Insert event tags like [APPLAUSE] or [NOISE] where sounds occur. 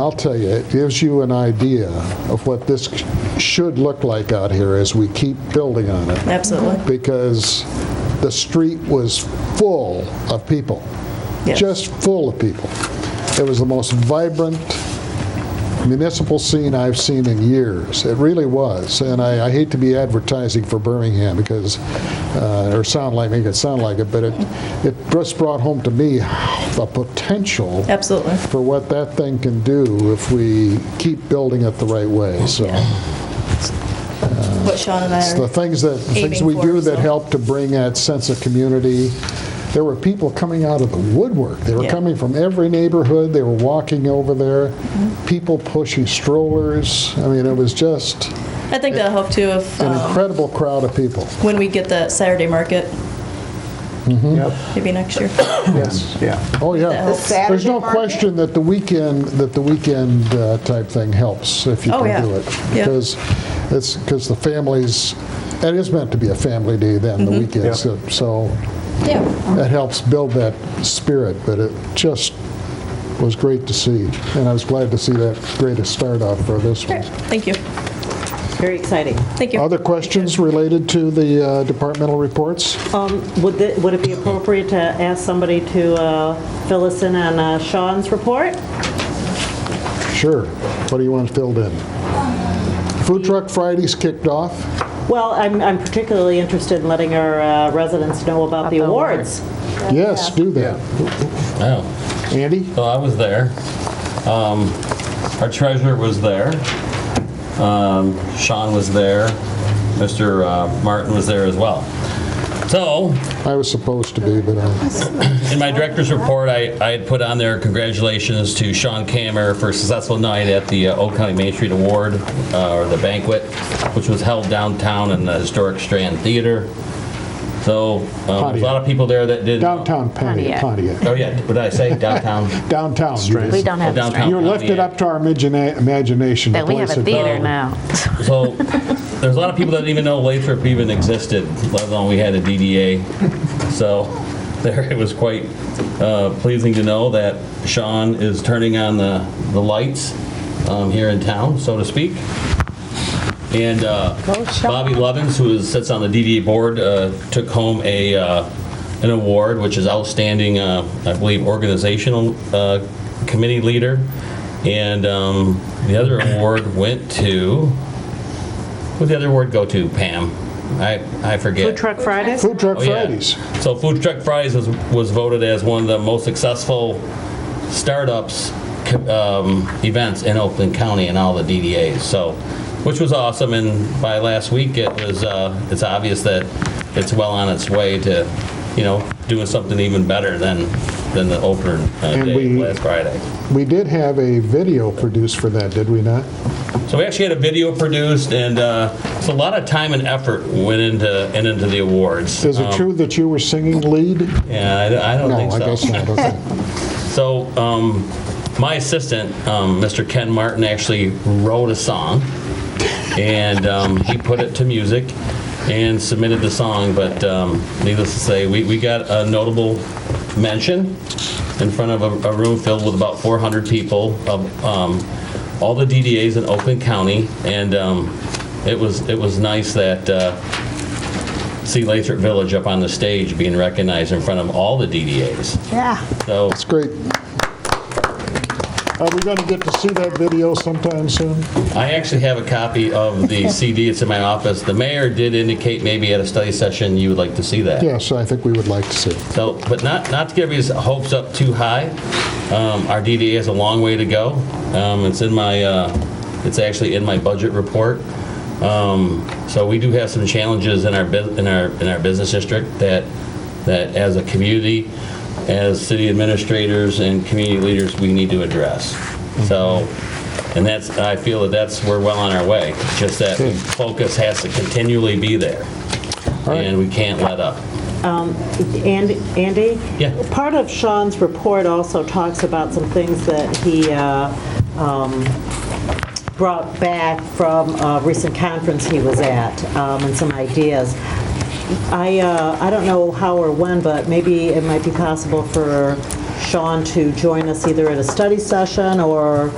I'll tell you, it gives you an idea of what this should look like out here as we keep building on it, Absolutely. because the street was full of people, Yes. just full of people. It was the most vibrant municipal scene I've seen in years. It really was, and I, I hate to be advertising for Birmingham because, uh, or sound like make it sound like it, but it it just brought home to me the potential Absolutely. for what that thing can do if we keep building it the right way. So What Sean and it's the I are, things that, the things Aiming we for, do that so. help to bring that sense of community. There were people coming out of the woodwork. They were Yeah. coming from every neighborhood. They were walking over there. Mm-hmm. People pushing strollers. I mean, it was just I think that'll help too if, an um, incredible crowd of people. when we get that Saturday market, Yep, maybe [COUGHS] next year. yes, yeah. Oh, yeah. The There's Saturday no market? question that the weekend, that the weekend uh, type thing helps if you Oh, yeah. can do it. Yeah. Because it's, because the families, it is meant to be a family day then, Mm-hmm. the weekend. so- So Yeah. that helps build that spirit, but it just was great to see. And I was glad to see that greatest start out for this one. Thank you. Very exciting. Thank you. Other questions related to the uh, departmental reports? Um, Would thi- would it be appropriate to ask somebody to uh, fill us in on uh, Sean's report? Sure. What do you want filled in? Food Truck Fridays kicked off. Well, I'm I'm particularly interested in letting our uh, residents know about the awards. Yes, do that. Oh, Andy? well, I was there. Um, Our treasurer was there. Um, Sean was there. Mr. uh, Martin was there as well. So, I was supposed to be, but uh, in my director's report, I, I had put on there congratulations to Sean Kammer for a successful night at the uh, Old County Main Street Award, uh, or the banquet, which was held downtown in the historic Strand Theater. So, um, a lot of people there that did. downtown Pontiac. Pontiac. Oh, yeah, what did I say? Downtown? Downtown. We don't have Downtown. strength. You're lifted up to our imagina- imagination. But we have a Place it- theater now. So there's a lot of people that didn't even know Lathrop even existed, let alone we had a DDA. So there, it was quite uh, pleasing to know that Sean is turning on the, the lights um, here in town, so to speak. And uh, Bobby Lovins, who is- sits on the DDA board, uh, took home a, uh, an award, which is outstanding, uh, I believe, organizational uh, committee leader. And um, the other award went to, who'd the other award go to, Pam? I, I forget. Food Truck Fridays? Food Truck Oh, yeah. Fridays. So Food Truck Fridays was, was voted as one of the most successful startups um, events in Oakland County and all the DDAs. So, which was awesome. And by last week, it was uh, it's obvious that it's well on its way to, you know, doing something even better than than the opener uh, And day we- last Friday. We did have a video produced for that, did we not? So we actually had a video produced, and uh, so a lot of time and effort went into and into the awards. Is it true that you were singing lead? Yeah, Um, I, I don't No, think so. I guess not. okay. So, um, my assistant, um, Mr. Ken Martin, actually wrote a song, and um, he put it to music and submitted the song, but um, needless to say, we, we got a notable mention in front of a, a room filled with about 400 people of um, all the DDAs in Oakland County, and um, it was, it was nice that, uh, see Lathrop Village up on the stage being recognized in front of all the DDAs. Yeah. So, It's [LAUGHS] great. Are we going to get to see that video sometime soon? I actually have a copy of the [LAUGHS] CD. It's in my office. The mayor did indicate maybe at a study session you would like to see that. Yes, I think we would like to see it. So, but not, not to give his hopes up too high. Um, Our DDA has a long way to go. Um, It's in my, uh, it's actually in my budget report. Um, So we do have some challenges in our, bus- in our, in our business district that, that as a community, as city administrators and community leaders, we need to address. Mm-hmm. So, and that's, I feel that that's, we're well on our way. Just that Good. focus has to continually be there. right. And we can't let up. And- Andy? Yeah. Part of Sean's report also talks about some things that he uh, um, brought back from a recent conference he was at, um, and some ideas. I, uh, I don't know how or when, but maybe it might be possible for Sean to join us either at a study session or